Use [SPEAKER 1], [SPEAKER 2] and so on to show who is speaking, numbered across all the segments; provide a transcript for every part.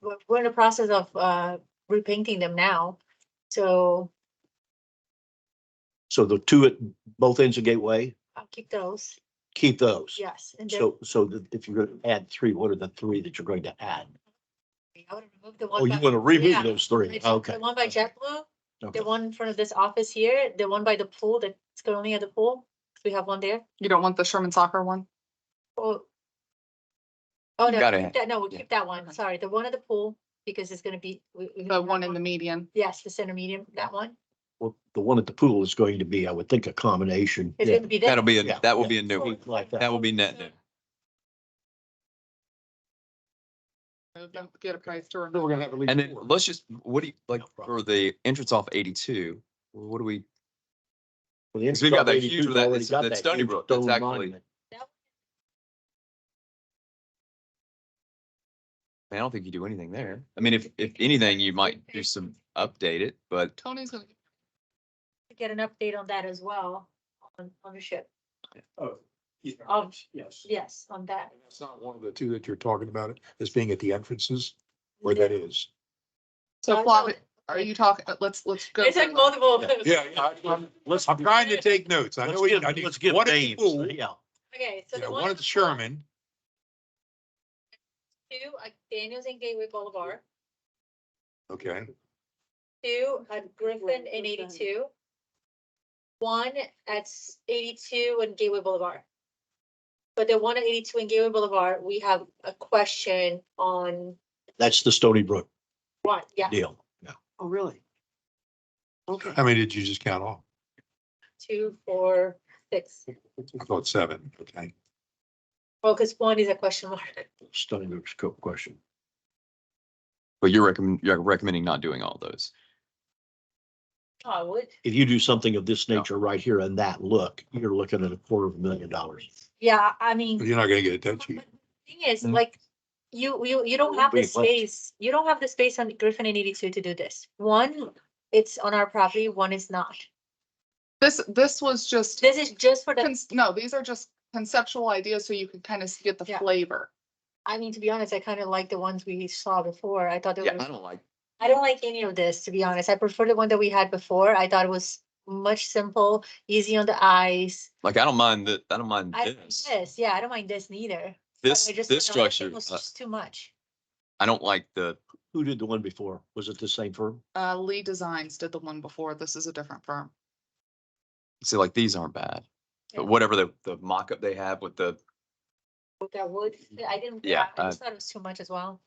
[SPEAKER 1] we're- we're in the process of uh repainting them now. So
[SPEAKER 2] So the two at both ends of Gateway,
[SPEAKER 1] I'll keep those,
[SPEAKER 2] keep those.
[SPEAKER 1] yes. And then
[SPEAKER 2] So, so that if you're going to add three, what are the three that you're going to add?
[SPEAKER 1] I would remove the
[SPEAKER 2] Oh,
[SPEAKER 1] one.
[SPEAKER 2] you
[SPEAKER 1] by-
[SPEAKER 2] want to remove
[SPEAKER 1] yeah.
[SPEAKER 2] those three?
[SPEAKER 1] It's
[SPEAKER 2] Okay.
[SPEAKER 1] The one by JetBlue,
[SPEAKER 2] Okay.
[SPEAKER 1] the one in front of this office here, the one by the pool that's currently at the pool. We have one there.
[SPEAKER 3] You don't want the Sherman soccer one?
[SPEAKER 1] Oh. Oh, no,
[SPEAKER 4] Got
[SPEAKER 1] keep
[SPEAKER 4] it.
[SPEAKER 1] that, no, we'll
[SPEAKER 4] Yeah.
[SPEAKER 1] keep that one.
[SPEAKER 3] Okay.
[SPEAKER 1] Sorry, the one at the pool, because it's gonna be. we- we
[SPEAKER 3] The
[SPEAKER 1] have
[SPEAKER 3] one in the
[SPEAKER 1] that
[SPEAKER 3] median?
[SPEAKER 1] Yes, the center medium, that one.
[SPEAKER 2] Well, the one at the pool is going to be, I would think, a combination.
[SPEAKER 1] It's
[SPEAKER 2] Yeah.
[SPEAKER 1] gonna be there.
[SPEAKER 4] That'll be,
[SPEAKER 2] Yeah,
[SPEAKER 4] a that will
[SPEAKER 2] yeah.
[SPEAKER 4] be a new one.
[SPEAKER 2] Like that.
[SPEAKER 4] That will be net new.
[SPEAKER 3] Move them, Get a price to
[SPEAKER 2] Then
[SPEAKER 3] remove.
[SPEAKER 2] we're gonna have at least
[SPEAKER 4] And then
[SPEAKER 2] four.
[SPEAKER 4] let's just, what do you, like,
[SPEAKER 2] No problem.
[SPEAKER 4] for the entrance off eighty-two, what do we,
[SPEAKER 2] Well, the
[SPEAKER 4] because we've got that
[SPEAKER 2] 82's
[SPEAKER 4] huge one that-
[SPEAKER 2] already
[SPEAKER 4] that's-
[SPEAKER 2] got
[SPEAKER 4] that's
[SPEAKER 2] that
[SPEAKER 4] Stony
[SPEAKER 2] huge
[SPEAKER 4] Brook. That's
[SPEAKER 2] stone
[SPEAKER 4] actually-
[SPEAKER 2] monument.
[SPEAKER 4] man, I don't think you do anything there. I mean, if, if anything, you might do some update it, but
[SPEAKER 3] Tony's gonna.
[SPEAKER 1] Get an update on that as well, on on the ship.
[SPEAKER 5] Oh, yeah,
[SPEAKER 1] Um,
[SPEAKER 5] yes.
[SPEAKER 1] Yes, on that.
[SPEAKER 5] And That's not one of the two that you're talking about, as being at the entrances, where that is.
[SPEAKER 3] So
[SPEAKER 1] I
[SPEAKER 3] Flav,
[SPEAKER 1] know.
[SPEAKER 3] are you talking, uh, let's, let's go.
[SPEAKER 1] It's like
[SPEAKER 3] through.
[SPEAKER 1] multiple. of those.
[SPEAKER 5] Yeah, yeah, I- I'm, I'm trying to take notes. I know.
[SPEAKER 2] Let's
[SPEAKER 5] we-
[SPEAKER 2] give,
[SPEAKER 5] I need
[SPEAKER 2] let's give
[SPEAKER 5] one at the
[SPEAKER 2] names.
[SPEAKER 5] pool,
[SPEAKER 2] Yeah.
[SPEAKER 1] Okay, so
[SPEAKER 5] yeah,
[SPEAKER 1] the
[SPEAKER 5] One
[SPEAKER 1] one.
[SPEAKER 5] at the Sherman,
[SPEAKER 1] Two, at Daniels and Gateway Boulevard,
[SPEAKER 5] okay,
[SPEAKER 1] two at Griffin and eighty-two. One at s- eighty-two and Gateway Boulevard. But the one at eighty-two and Gateway Boulevard, we have a question on
[SPEAKER 2] That's the Stony Brook
[SPEAKER 1] one, yeah,
[SPEAKER 2] deal.
[SPEAKER 6] Oh, really? Okay.
[SPEAKER 5] how many did you just count off?
[SPEAKER 1] two, four, six.
[SPEAKER 5] I thought seven, okay.
[SPEAKER 1] Focus one is a question mark.
[SPEAKER 2] Stony Brook's co- question.
[SPEAKER 4] but you're recommend, you're recommending not doing all those.
[SPEAKER 1] Oh, I would.
[SPEAKER 2] If you do something of this
[SPEAKER 4] No.
[SPEAKER 2] nature right here and that look, you're looking at a quarter of a million dollars.
[SPEAKER 1] Yeah, I mean.
[SPEAKER 5] You're not gonna get it that
[SPEAKER 1] But-
[SPEAKER 5] cheap.
[SPEAKER 1] but the Thing is,
[SPEAKER 4] Mhm.
[SPEAKER 1] like, you, you, you don't have the
[SPEAKER 2] Wait, what?
[SPEAKER 1] space, you don't have the space on Griffin and eighty-two to do this. One, it's on our property, one is not.
[SPEAKER 3] This, this was just,
[SPEAKER 1] This is just for the,
[SPEAKER 3] cons- no, these are just conceptual ideas so you can kind of get the
[SPEAKER 1] Yeah.
[SPEAKER 3] flavor.
[SPEAKER 1] I mean, to be honest, I kind of like the ones we saw before. I thought
[SPEAKER 4] Yeah,
[SPEAKER 1] that
[SPEAKER 4] I
[SPEAKER 1] was,
[SPEAKER 4] don't like,
[SPEAKER 1] I don't like any of this, to be honest. I prefer the one that we had before. I thought it was much simple, easy on the eyes.
[SPEAKER 4] like, I don't mind that, I don't mind
[SPEAKER 1] I, don't mind
[SPEAKER 4] this.
[SPEAKER 1] this, yeah, I don't mind this neither. but
[SPEAKER 4] This,
[SPEAKER 1] I just
[SPEAKER 4] this
[SPEAKER 1] thought the other thing
[SPEAKER 4] structure,
[SPEAKER 1] was
[SPEAKER 4] uh,
[SPEAKER 1] just Too much.
[SPEAKER 4] I don't like the,
[SPEAKER 2] Who did the one before? Was it the same firm?
[SPEAKER 3] Uh, Lee Designs did the one before. This is a different firm.
[SPEAKER 4] see, like, these aren't bad.
[SPEAKER 1] Yeah.
[SPEAKER 4] But whatever the, the mock-up they have with the,
[SPEAKER 1] With that wood, I didn't,
[SPEAKER 4] Yeah,
[SPEAKER 1] I
[SPEAKER 4] uh,
[SPEAKER 1] just thought it was too much as well.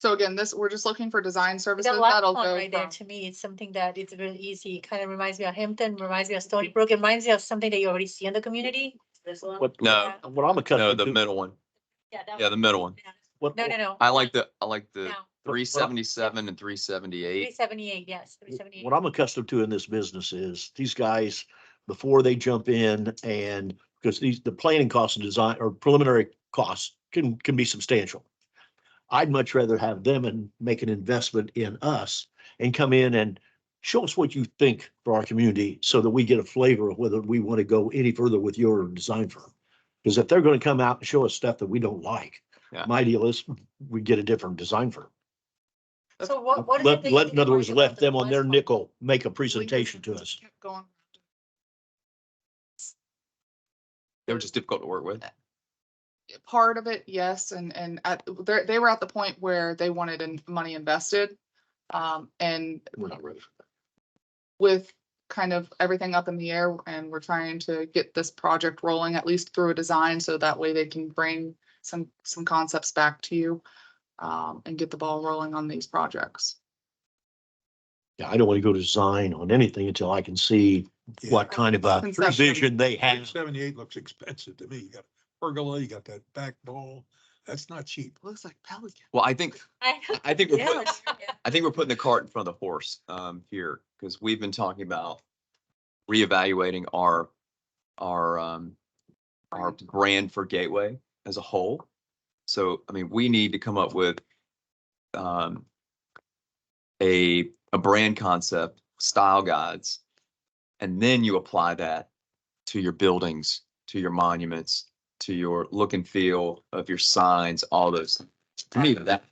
[SPEAKER 3] So again, this, we're just looking for design services.
[SPEAKER 1] The last
[SPEAKER 3] That'll
[SPEAKER 1] one
[SPEAKER 3] go
[SPEAKER 1] right there,
[SPEAKER 3] from.
[SPEAKER 1] to me, it's something that it's really easy, kind of reminds me of Hampton, reminds me of Stony Brook, it reminds me of something that you already see in the community. This one?
[SPEAKER 2] What,
[SPEAKER 4] no,
[SPEAKER 2] what I'm
[SPEAKER 4] no,
[SPEAKER 2] accustomed
[SPEAKER 4] the
[SPEAKER 2] to.
[SPEAKER 4] middle one.
[SPEAKER 1] Yeah, that
[SPEAKER 4] Yeah,
[SPEAKER 1] one.
[SPEAKER 4] the middle one.
[SPEAKER 2] what-
[SPEAKER 1] No, no, no.
[SPEAKER 4] I like the, I like the
[SPEAKER 1] No,
[SPEAKER 4] three seventy-seven and three
[SPEAKER 1] three
[SPEAKER 4] seventy-eight.
[SPEAKER 1] seventy-eight, yes, three seventy-eight.
[SPEAKER 2] What I'm accustomed to in this business is these guys, before they jump in and, because these, the planning costs and design or preliminary costs can, can be substantial. I'd much rather have them and make an investment in us and come in and show us what you think for our community so that we get a flavor of whether we want to go any further with your design firm. Because if they're going to come out and show us stuff that we don't like,
[SPEAKER 4] Yeah.
[SPEAKER 2] my deal is we get a different design firm.
[SPEAKER 1] So what, what is it
[SPEAKER 2] Let,
[SPEAKER 1] that you
[SPEAKER 2] let, in
[SPEAKER 1] didn't
[SPEAKER 2] other
[SPEAKER 1] like
[SPEAKER 2] words,
[SPEAKER 1] about
[SPEAKER 2] let
[SPEAKER 1] the
[SPEAKER 2] them on
[SPEAKER 1] last
[SPEAKER 2] their
[SPEAKER 1] one?
[SPEAKER 2] nickel make a
[SPEAKER 3] Lee
[SPEAKER 2] presentation to
[SPEAKER 3] Designs
[SPEAKER 2] us.
[SPEAKER 3] kept going.
[SPEAKER 4] They were just difficult to work with.
[SPEAKER 3] part of it, yes, and, and at, they they were at the point where they wanted in, money invested. Um, and
[SPEAKER 2] We're not ready.
[SPEAKER 3] with kind of everything up in the air and we're trying to get this project rolling at least through a design so that way they can bring some, some concepts back to you. Um, and get the ball rolling on these projects.
[SPEAKER 2] Yeah, I don't want to go to design on anything until I can see what kind of a
[SPEAKER 3] Conception.
[SPEAKER 2] vision they
[SPEAKER 5] Three
[SPEAKER 2] have.
[SPEAKER 5] seventy-eight looks expensive to me. You got pergola, you got that back wall. That's not cheap.
[SPEAKER 3] Looks like Pelican.
[SPEAKER 4] Well, I think,
[SPEAKER 1] I know.
[SPEAKER 4] I- I think we're putting,
[SPEAKER 1] Yeah.
[SPEAKER 4] I think we're putting the cart in front of the horse um here, because we've been talking about reevaluating our our um our brand for Gateway as a whole. So, I mean, we need to come up with um a a brand concept, style guides, and then you apply that to your buildings, to your monuments, to your look and feel of your signs, all those. To me, that